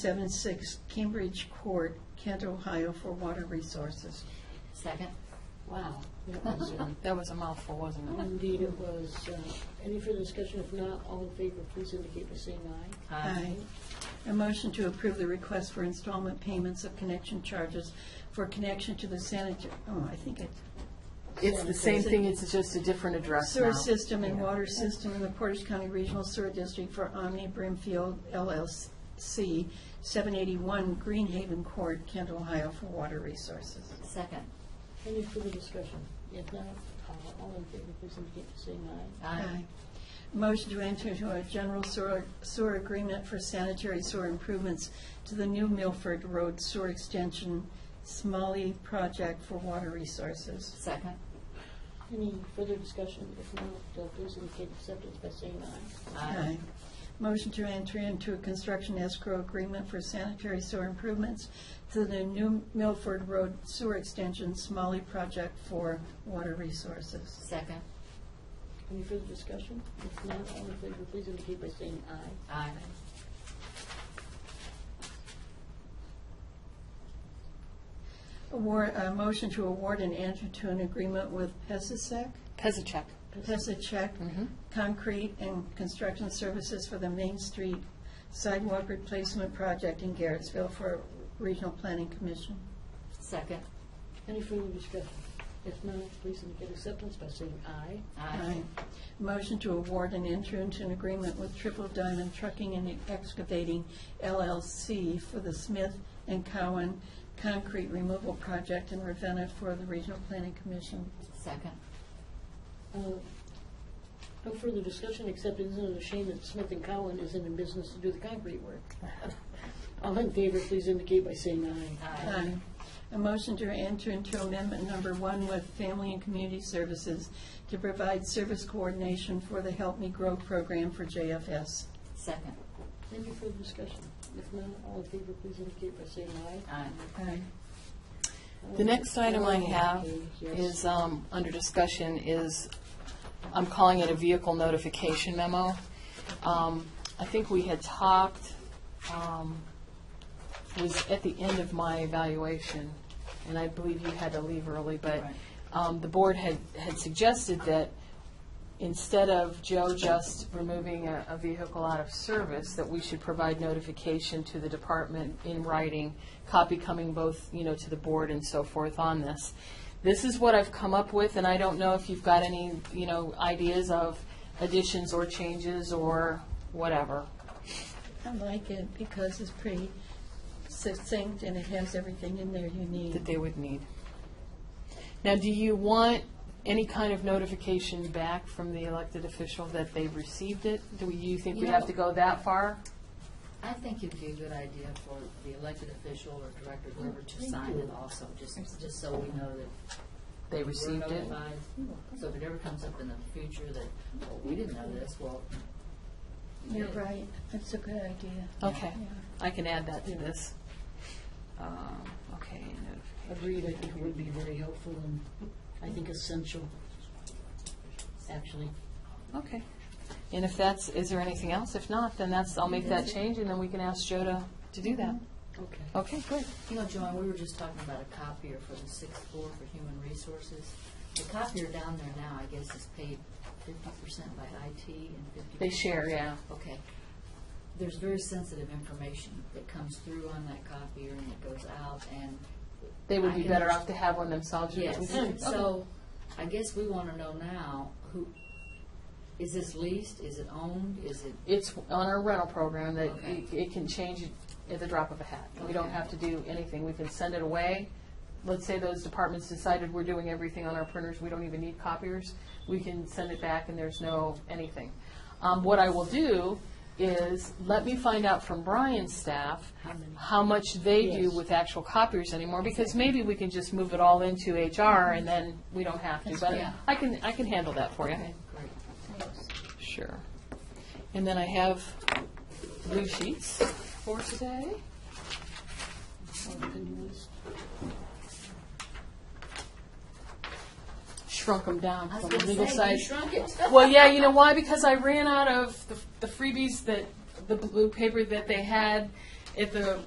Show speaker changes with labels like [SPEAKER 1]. [SPEAKER 1] 776 Cambridge Court, Kent, Ohio, for water resources.
[SPEAKER 2] Second.
[SPEAKER 3] Wow. That was, uh,
[SPEAKER 2] That was a mouthful, wasn't it?
[SPEAKER 3] Indeed, it was. Uh, Any further discussion? If not, all in favor, please indicate by saying aye.
[SPEAKER 1] Aye. A motion to approve the request for installment payments of connection charges for connection to the sanitary, oh, I think it's
[SPEAKER 4] It's the same thing, it's just a different address now.
[SPEAKER 1] sewer system and water system in the Portage County Regional Sewer District for Omni Brimfield LLC, 781 Greenhaven Court, Kent, Ohio, for water resources.
[SPEAKER 2] Second.
[SPEAKER 3] Any further discussion? If not, uh, all in favor, please indicate by saying aye.
[SPEAKER 2] Aye.
[SPEAKER 1] Motion to enter into a general sewer, sewer agreement for sanitary sewer improvements to the new Milford Road Sewer Extension Smalley Project for water resources.
[SPEAKER 2] Second.
[SPEAKER 3] Any further discussion? If not, uh, please indicate acceptance by saying aye.
[SPEAKER 1] Aye. Motion to enter into a construction escrow agreement for sanitary sewer improvements to the new Milford Road Sewer Extension Smalley Project for water resources.
[SPEAKER 2] Second.
[SPEAKER 3] Any further discussion? If not, all in favor, please indicate by saying aye.
[SPEAKER 2] Aye.
[SPEAKER 1] Award, a uh, motion to award and enter to an agreement with Pesisec
[SPEAKER 4] Pezacek.
[SPEAKER 1] Pass a check, concrete and construction services for the Main Street sidewalk replacement project in Garrettsville for Regional Planning Commission.
[SPEAKER 2] Second.
[SPEAKER 3] Any further discussion? If not, please indicate acceptance by saying aye.
[SPEAKER 2] Aye.
[SPEAKER 1] Motion to award and enter into an agreement with Triple Diamond Trucking and Excavating LLC for the Smith and Cowan Concrete Removal Project in Ravenna for the Regional Planning Commission.
[SPEAKER 2] Second.
[SPEAKER 3] Uh, No further discussion, except isn't it a shame that Smith and Cowan isn't in business to do the concrete work? All in favor, please indicate by saying aye.
[SPEAKER 2] Aye.
[SPEAKER 1] A motion to enter into amendment number one with Family and Community Services to provide service coordination for the Help Me Grow program for JFS.
[SPEAKER 2] Second.
[SPEAKER 3] Any further discussion? If not, all in favor, please indicate by saying aye.
[SPEAKER 2] Aye.
[SPEAKER 4] The next item I
[SPEAKER 3] Okay,
[SPEAKER 4] have
[SPEAKER 3] yes.
[SPEAKER 4] is, um, under discussion, is, I'm calling it a vehicle notification memo. Um, I think we had talked, um, it was at the end of my evaluation, and I believe you had to leave early, but
[SPEAKER 2] Right.
[SPEAKER 4] um, the board had, had suggested that instead of Joe just removing a, a vehicle out of service, that we should provide notification to the department in writing, copy coming both, you know, to the board and so forth on this. This is what I've come up with, and I don't know if you've got any, you know, ideas of additions or changes or whatever.
[SPEAKER 1] I like it because it's pretty succinct and it has everything in there you
[SPEAKER 4] that
[SPEAKER 1] need.
[SPEAKER 4] they would need. Now, do you want any kind of notification back from the elected official that they've received it? Do you think we have to go that far?
[SPEAKER 2] I think it'd be a good idea for the elected official or director, whoever, to sign it also, just, just so we know that
[SPEAKER 4] They
[SPEAKER 2] we're
[SPEAKER 4] received it?
[SPEAKER 2] notified. So if it ever comes up in the future that, well, we didn't know this, well. we
[SPEAKER 1] You're
[SPEAKER 2] did.
[SPEAKER 1] right, that's a good idea.
[SPEAKER 4] Okay,
[SPEAKER 1] Yeah.
[SPEAKER 4] I can add that to this. Um, Okay,
[SPEAKER 3] Agreed, I think it would be very helpful and I think essential, actually.
[SPEAKER 4] notification. okay. And if that's, is there anything else? If not, then that's, I'll make that change, and then we can ask Joe to, to do that.
[SPEAKER 2] Mm-hmm.
[SPEAKER 3] Okay.
[SPEAKER 4] Okay, great.
[SPEAKER 2] You know, Joan, we were just talking about a copier for the sixth floor for human resources. The copier down there now, I guess, is paid fifty percent by IT and fifty.
[SPEAKER 4] They share, yeah.
[SPEAKER 2] Okay. There's very sensitive information that comes through on that copier and it goes out and,
[SPEAKER 4] They would
[SPEAKER 2] I
[SPEAKER 4] be
[SPEAKER 2] can
[SPEAKER 4] better
[SPEAKER 2] ask-
[SPEAKER 4] off to have one themselves.
[SPEAKER 2] yes.
[SPEAKER 4] Okay.
[SPEAKER 2] So I guess we want to know now, who, is this leased? Is it owned? Is it,
[SPEAKER 4] It's on our rental program that
[SPEAKER 2] Okay.
[SPEAKER 4] it- it can change at the drop of a hat. We don't
[SPEAKER 2] Okay.
[SPEAKER 4] have to do anything. We can send it away. Let's say those departments decided we're doing everything on our printers, we don't even need copiers. We can send it back and there's no anything. Um, What I will do is, let me find out from Brian's staff how much they do
[SPEAKER 3] Yes.
[SPEAKER 4] with actual copiers anymore, because maybe we can just move it all into HR and then we don't have to. But
[SPEAKER 2] Yeah.
[SPEAKER 4] I can, I can handle that for you.
[SPEAKER 2] great.
[SPEAKER 4] Sure. And then I have blue sheets for today. Shrunk them down
[SPEAKER 2] I was
[SPEAKER 4] from
[SPEAKER 2] going
[SPEAKER 4] the
[SPEAKER 2] to
[SPEAKER 4] legal
[SPEAKER 2] say, you
[SPEAKER 4] size.
[SPEAKER 2] shrunk it.
[SPEAKER 4] Well, yeah, you know why? Because I ran out of the, the freebies that, the blue paper that they had, at the